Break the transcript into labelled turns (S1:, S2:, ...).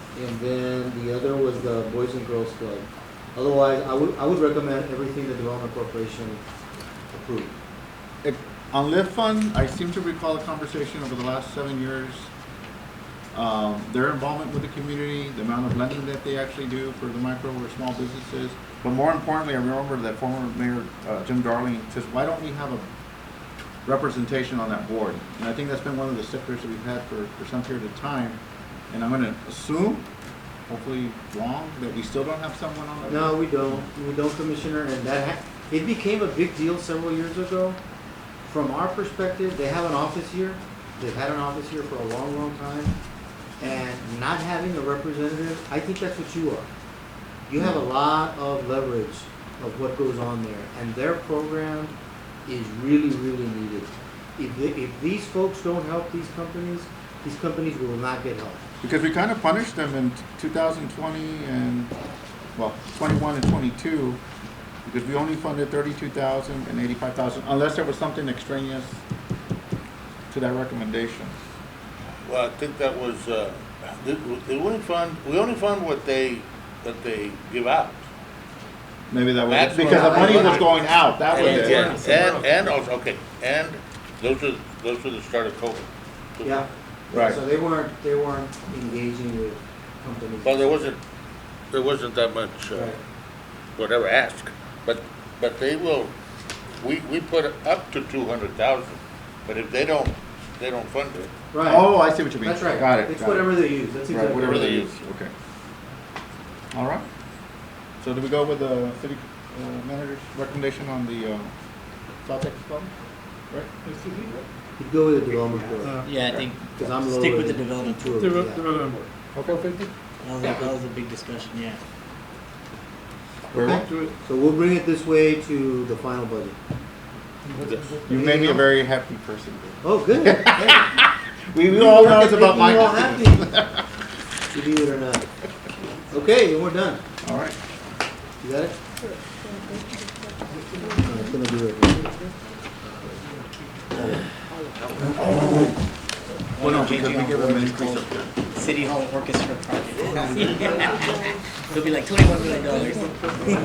S1: and then the other was the Boys and Girls Club. Otherwise, I would, I would recommend everything the Development Corporation approved.
S2: If- On lift fund, I seem to recall a conversation over the last seven years, um, their involvement with the community, the amount of lending that they actually do for the micro or small businesses. But more importantly, I remember that former mayor, uh, Jim Darling, says, why don't we have a representation on that board? And I think that's been one of the stickers that we've had for, for some period of time. And I'm gonna assume, hopefully wrong, that we still don't have someone on that.
S1: No, we don't, we don't, Commissioner, and that, ha- it became a big deal several years ago. From our perspective, they have an office here, they've had an office here for a long, long time, and not having a representative, I think that's what you are. You have a lot of leverage of what goes on there, and their program is really, really needed. If, the- if these folks don't help these companies, these companies will not get help.
S2: Because we kind of punished them in 2020 and, well, 21 and 22, because we only funded 32,000 and 85,000, unless there was something extraneous to that recommendation.
S3: Well, I think that was, uh, the, the only fund, we only fund what they, that they give out.
S2: Maybe that was,
S3: That's what
S2: because the
S1: I-
S2: money was going out, that was
S3: And,
S2: it.
S3: and, and also, okay, and those are, those are the start of COVID.
S1: Yeah.
S2: Right.
S1: So they weren't, they weren't engaging with companies.
S3: Well, there wasn't, there wasn't that much, uh,
S1: Right.
S3: whatever ask, but, but they will, we, we put up to two hundred thousand, but if they don't, they don't fund it.
S1: Right.
S2: Oh, I see what you mean.
S1: That's right.
S2: Got it.
S1: It's
S2: got it.
S1: whatever they use, that's
S2: Right,
S1: exactly
S2: whatever
S1: right.
S2: they
S3: Whatever
S2: use, okay. All right. So do we go with the city uh, manager's recommendation on the uh, South Texas Club? Right?
S1: You'd go with the development board,
S4: Uh,
S5: Yeah, I think
S1: because I'm low.
S5: stick with the
S1: rated.
S5: development
S1: Two
S5: tool.
S1: of
S4: The,
S1: them,
S4: re-
S1: yeah.
S4: the relevant board.
S2: Okay, Fifty?
S5: That was, that was a big discussion, yeah.
S2: Very well.
S4: Do it.
S1: So we'll bring it this way to the final budget.
S2: You made me a very happy person.
S1: Oh, good. Hey,
S2: We, we all know it's
S1: you
S2: about my
S1: all
S2: happiness.
S1: happy. Believe it or not. Okay, and we're done.
S2: All right.
S1: You got it? Uh, It's gonna be right.
S2: Well, no, because we give them an increase of.
S5: City Hall Orchestra project. It'll be like twenty-one million dollars.